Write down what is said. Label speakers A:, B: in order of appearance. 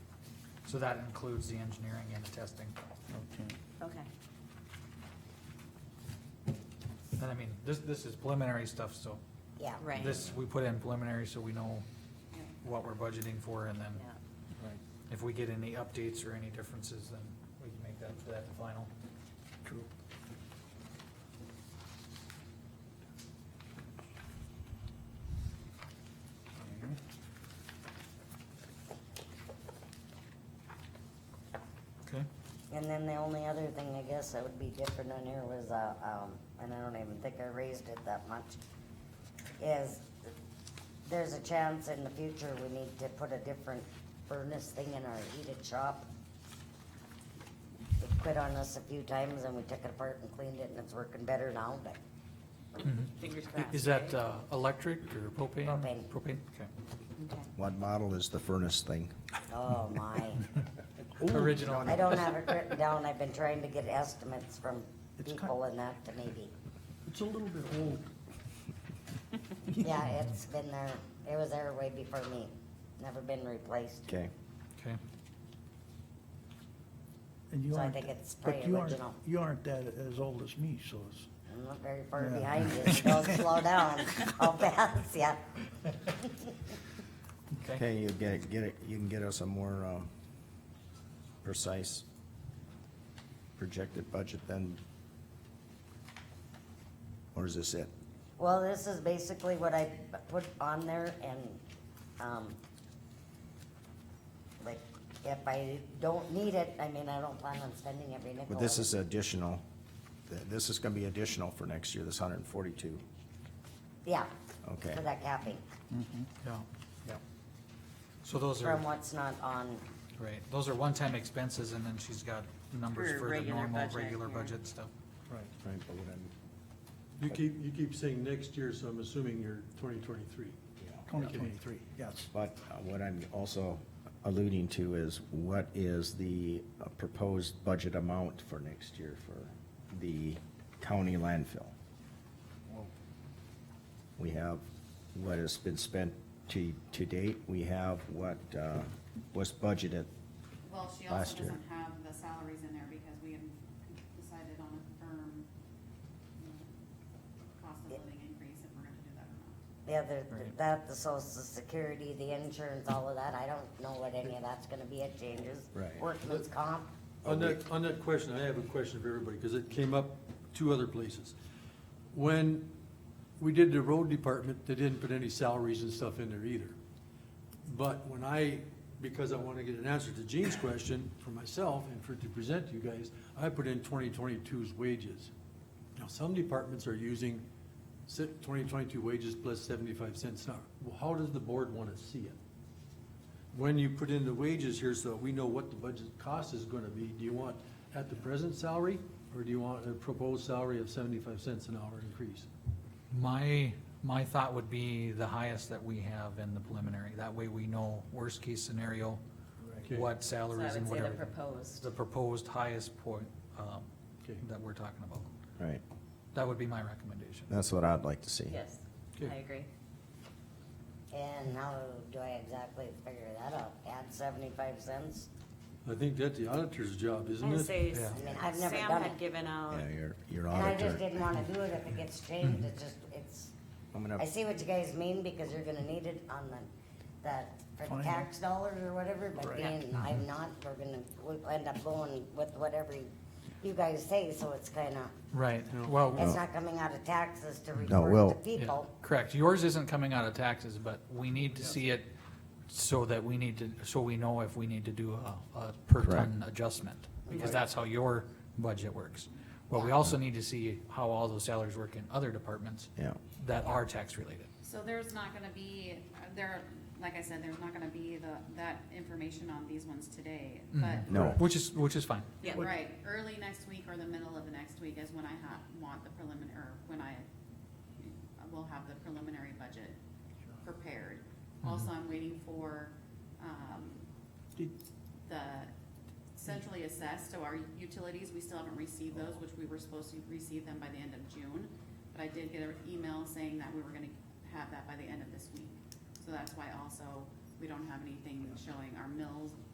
A: So that includes the engineering and the testing.
B: Okay.
C: Okay.
A: And I mean, this, this is preliminary stuff, so
C: Yeah.
D: Right.
A: this, we put in preliminary so we know
C: Yeah.
A: what we're budgeting for and then
C: Yeah.
B: Right,
A: if we get any updates or any differences, then we can make that, that final.
B: true.
A: Okay.
E: And then the only other thing, I guess, that would be different on here was, uh, um, and I don't even think I raised it that much, is there's a chance in the future we need to put a different furnace thing in our heated shop. It quit on us a few times and we took it apart and cleaned it and it's working better now, but
C: Fingers
A: I-
C: crossed.
A: Is that,
C: right?
A: uh, electric or propane?
E: Propane.
A: Propane, okay.
C: Okay.
F: What model is the furnace thing?
E: oh my.
A: Original.
E: I don't have it written down. I've been trying to get estimates from
B: It's cut-
E: people and that to maybe.
B: It's a little bit old.
E: Yeah, it's been there, it was there way before me, never been replaced.
F: Okay.
A: Okay.
B: And you
E: So I
B: aren't-
E: think it's
B: but
E: probably
B: you aren't-
E: original.
B: You aren't that as old as me, so it's,
E: I'm not very far
B: Yeah.
E: behind you, so don't slow down, I'll pass ya.
A: Okay.
F: Okay, you get, get it, you can get us a more, um, precise projected budget then? Or is this it?
E: Well, this is basically what I put on there and, um, like, if I don't need it, I mean, I don't plan on spending every nickel.
F: But this is additional, th- this is gonna be additional for next year, this hundred and forty-two.
E: Yeah.
F: Okay.
E: For that capping,
A: Yeah, yeah. So those are,
E: from what's not on,
A: right, those are one-time expenses and then she's got numbers
C: For
A: for the
C: regular
A: normal,
C: budget,
A: regular
C: yeah.
A: budget stuff.
B: right.
F: Right, but what I'm,
G: You keep, you keep saying next year, so I'm assuming you're twenty twenty-three.
B: Twenty twenty-three, yes.
F: but uh, what I'm also alluding to is what is the uh, proposed budget amount for next year for the county landfill? We have what has been spent to, to date, we have what, uh, was budgeted,
H: Well, she
F: Last
H: also
F: year.
H: doesn't have the salaries in there because we have decided on a firm um, cost of living increase if we're gonna do that or not.
E: the other,
A: Right.
E: that, the social security, the insurance, all of that, I don't know what any of that's gonna be, it changes.
F: Right.
E: Workman's comp,
G: On that, on that question, I have a question for everybody, because it came up two other places. When we did the road department, they didn't put any salaries and stuff in there either. But when I, because I want to get an answer to Gene's question for myself and for, to present to you guys, I put in 2022's wages. Now, some departments are using si- 2022 wages plus 75 cents an hour. Well, How does the board want to see it? when you put in the wages here, so we know what the budget cost is gonna be, do you want at the present salary? Or do you want a proposed salary of seventy-five cents an hour increase?
A: My, my thought would be the highest that we have in the preliminary. That way we know worst-case scenario,
G: Okay.
A: what
C: So I
A: salaries and
C: would say the
A: whatever.
C: proposed.
A: The proposed highest point, um,
G: Okay.
A: that we're talking about.
F: right?
A: That would be my recommendation.
F: That's what I'd like to see.
C: Yes, I
G: Okay.
C: agree.
E: and how do I exactly figure that out, add seventy-five cents?
G: I think that's the auditor's job, isn't
C: I
G: it?
C: say,
A: Yeah.
E: I mean, I've never
C: Sam
E: done it,
C: had given out,
F: Yeah, your, your
E: and I just
F: auditor.
E: didn't wanna do it if it gets changed, it's just, it's,
F: I'm gonna-
E: I see what you guys mean, because you're gonna need it on the, that, for the
B: Fine.
E: tax dollars or whatever, but
B: Right.
E: being,
F: Mm-hmm.
E: I'm not, we're gonna, we'll end up going with whatever you guys say, so it's kinda,
A: Right,
G: No.
A: well,
E: it's not coming out of taxes to
F: No,
E: report
F: we'll-
E: to people.
A: correct. Yours isn't coming out of taxes, but we need to see it so that we need to, so we know if we need to do a, a per ton adjustment. Because that's how your budget works. But we also need to see how all those salaries work in other departments
F: Yeah.
A: that are tax related.
H: So there's not gonna be, there, like I said, there's not gonna be the, that information on these ones today, but.
F: Mm-hmm. No.
A: Which is, which is fine.
C: yeah,
H: Right, early next week or the middle of the next week is when I ha want the preliminary, or when I will have the preliminary budget prepared. Also, I'm waiting for, um,
B: Did-
H: the centrally assessed, so our utilities, we still haven't received those, which we were supposed to receive them by the end of June. But I did get an email saying that we were gonna have that by the end of this week. So that's why also, we don't have anything showing our mills